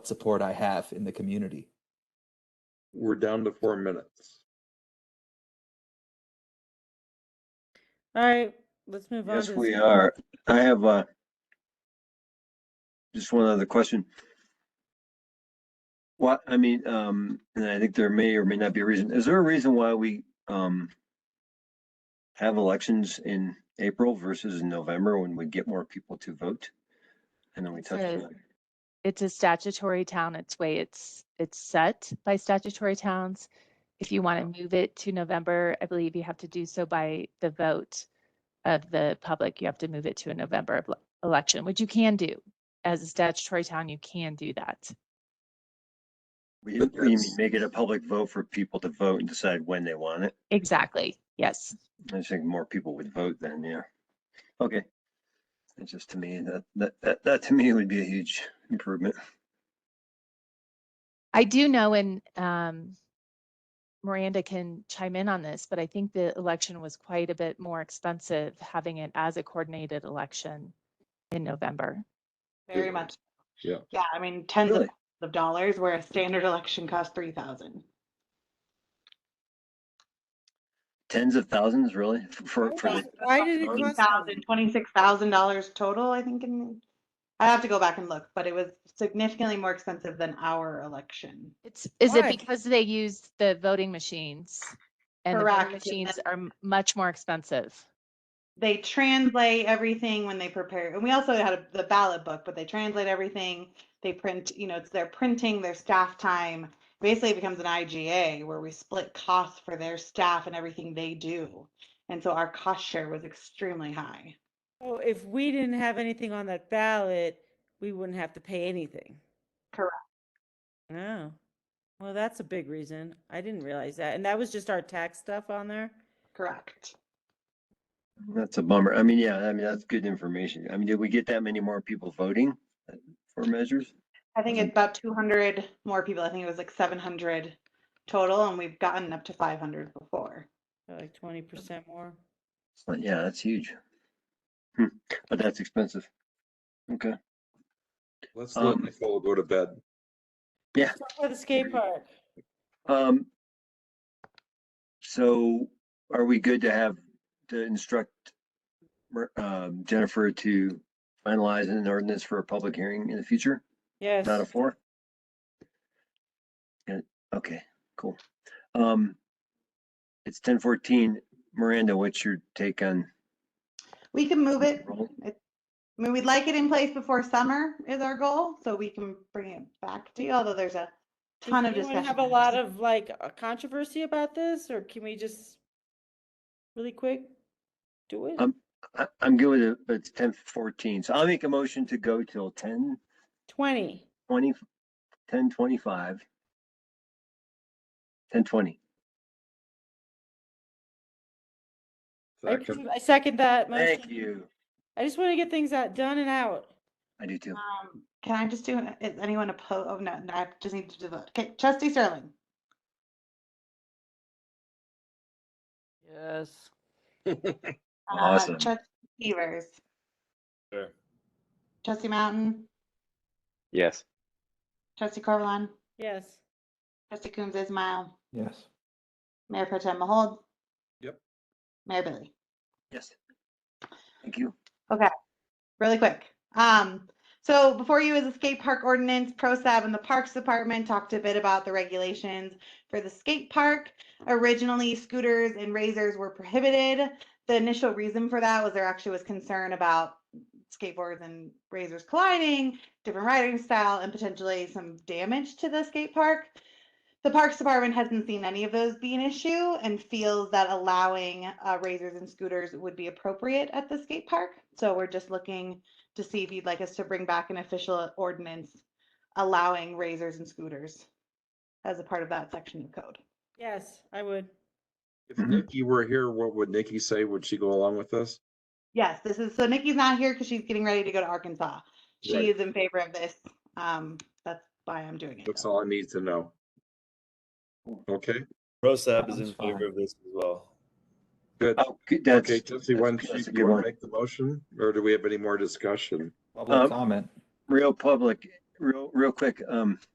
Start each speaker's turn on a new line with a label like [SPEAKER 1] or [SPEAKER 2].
[SPEAKER 1] support I have in the community.
[SPEAKER 2] We're down to four minutes.
[SPEAKER 3] All right, let's move on.
[SPEAKER 4] Yes,
[SPEAKER 3] to the
[SPEAKER 4] we
[SPEAKER 3] second-
[SPEAKER 4] are. I have, uh, just one other question. What, I mean, um, and I think there may or may not be a reason. Is there a reason why we, um, have elections in April versus in November when we get more people to vote? And then we touch on
[SPEAKER 5] Because-
[SPEAKER 4] that.
[SPEAKER 5] it's a statutory town, it's way it's, it's set by statutory towns. If you want to move it to November, I believe you have to do so by the vote of the public. You have to move it to a November ele- election, which you can do. As a statutory town, you can do that.
[SPEAKER 4] We,
[SPEAKER 2] But
[SPEAKER 4] we
[SPEAKER 2] that's-
[SPEAKER 4] make it a public vote for people to vote and decide when they want it.
[SPEAKER 5] Exactly, yes.
[SPEAKER 4] I just think more people would vote then, yeah. Okay. It's just to me, that, that, that, that to me would be a huge improvement.
[SPEAKER 5] I do know, and um, Miranda can chime in on this, but I think the election was quite a bit more expensive having it as a coordinated election in November.
[SPEAKER 6] Very
[SPEAKER 2] Yeah.
[SPEAKER 6] much.
[SPEAKER 2] Yeah.
[SPEAKER 6] Yeah, I mean, tens of
[SPEAKER 4] Really?
[SPEAKER 6] thousands of dollars where a standard election costs three thousand.
[SPEAKER 4] Tens of thousands, really? F-
[SPEAKER 3] Oh,
[SPEAKER 4] For, for, the-
[SPEAKER 3] Why did it cost? so much?
[SPEAKER 6] Thousand, twenty-six thousand dollars total, I think, in, I have to go back and look, but it was significantly more expensive than our election.
[SPEAKER 5] It's, is it
[SPEAKER 3] Why?
[SPEAKER 5] because they use the voting machines? And the voting
[SPEAKER 6] Correct, and
[SPEAKER 5] machines
[SPEAKER 6] then-
[SPEAKER 5] are m- much more expensive.
[SPEAKER 6] They translate everything when they prepare, and we also had a- the ballot book, but they translate everything. They print, you know, it's their printing, their staff time. Basically, it becomes an IGA where we split costs for their staff and everything they do. And so our cost share was extremely high.
[SPEAKER 3] So Oh, If we didn't have anything on that ballot, we wouldn't have to pay anything.
[SPEAKER 6] Correct.
[SPEAKER 3] No. Well, that's a big reason. I didn't realize that. And that was just our tax stuff on there.
[SPEAKER 6] Correct.
[SPEAKER 4] that's a bummer. I mean, yeah, I mean, that's good information. I mean, did we get that many more people voting uh, for measures?
[SPEAKER 6] I think it's about 200 more people. I think it was like 700 total, and we've gotten up to 500 before.
[SPEAKER 3] So Like twenty percent more.
[SPEAKER 4] It's like, Yeah, that's huge. Hmm, But that's expensive. Okay,
[SPEAKER 2] Let's let
[SPEAKER 4] Um,
[SPEAKER 2] Nicole go to bed.
[SPEAKER 3] Let's go to the skate park.
[SPEAKER 4] um, so are we good to have, to instruct Mer- um, Jennifer to finalize an ordinance for a public hearing in the future?
[SPEAKER 3] Yes.
[SPEAKER 4] Not a four? Yeah, okay, cool. Um, it's ten fourteen. Miranda, what's your take on?
[SPEAKER 6] We can move it.
[SPEAKER 4] roll?
[SPEAKER 6] I mean, we'd like it in place before summer is our goal, so we can bring it back to you, although there's a
[SPEAKER 3] Does
[SPEAKER 6] ton of
[SPEAKER 3] anyone
[SPEAKER 6] discussion.
[SPEAKER 3] Have a
[SPEAKER 6] items.
[SPEAKER 3] lot of like uh, controversy about this or can we just really quick do it?
[SPEAKER 4] Um, I, I'm good with it, but it's ten fourteen. So I'll make a motion to go till ten
[SPEAKER 3] Twenty.
[SPEAKER 4] twenty, ten twenty-five. Ten twenty.
[SPEAKER 3] I
[SPEAKER 2] Second.
[SPEAKER 3] approve- I second that
[SPEAKER 4] Thank
[SPEAKER 3] motion.
[SPEAKER 4] you.
[SPEAKER 3] I just want to get things out, done and out.
[SPEAKER 4] I do too.
[SPEAKER 6] Um, Can I just do, an- is anyone opposed? Oh, no, no, I just need to do the, vote. okay, trustee Sterling,
[SPEAKER 7] Yes.
[SPEAKER 6] uh,
[SPEAKER 4] Awesome.
[SPEAKER 6] trustee Severs,
[SPEAKER 8] Sure.
[SPEAKER 6] trustee Mountain,
[SPEAKER 7] Yes.
[SPEAKER 6] trustee Corvallon,
[SPEAKER 3] Yes.
[SPEAKER 6] trustee Coombs Ismail,
[SPEAKER 1] Yes.
[SPEAKER 6] Mayor Pro Tem Mahold.
[SPEAKER 2] Yep.
[SPEAKER 6] Mayor Billy.
[SPEAKER 4] Yes. Thank you.
[SPEAKER 6] really quick. Um, so before you is the skate park ordinance, ProSab and the Parks Department talked a bit about the regulations for the skate park. Originally, scooters and razors were prohibited. The initial reason for that was there actually was concern about skateboards and razors colliding, different riding style, and potentially some damage to the skate park. The Parks Department hasn't seen any of those be an issue and feels that allowing uh, razors and scooters would be appropriate at the skate park. So we're just looking to see if you'd like us to bring back an official ordinance allowing razors and scooters as a part of that section of code.
[SPEAKER 3] Yes, I would.
[SPEAKER 2] If
[SPEAKER 4] Mm-hmm.
[SPEAKER 2] Nikki were here, what would Nikki say? Would she go along with this?
[SPEAKER 6] Yes, this is, so Nikki's not here because she's getting ready to go to Arkansas.
[SPEAKER 2] Right.
[SPEAKER 6] She is in favor of this. Um, that's why I'm doing it.
[SPEAKER 2] That's
[SPEAKER 6] though.
[SPEAKER 2] all I need to know. Okay,
[SPEAKER 8] Rosab is in
[SPEAKER 1] Sounds fine.
[SPEAKER 8] favor of this as well.
[SPEAKER 2] good.
[SPEAKER 4] Oh, good,
[SPEAKER 2] Okay,
[SPEAKER 4] that's,
[SPEAKER 2] Jesse, why don't
[SPEAKER 4] that's- that's
[SPEAKER 2] you,
[SPEAKER 4] a
[SPEAKER 2] you
[SPEAKER 4] good
[SPEAKER 2] want
[SPEAKER 4] one.
[SPEAKER 2] to make the motion or do we have any more discussion?
[SPEAKER 1] Public
[SPEAKER 4] Um,
[SPEAKER 1] comment.
[SPEAKER 4] Real public, real, real quick, um,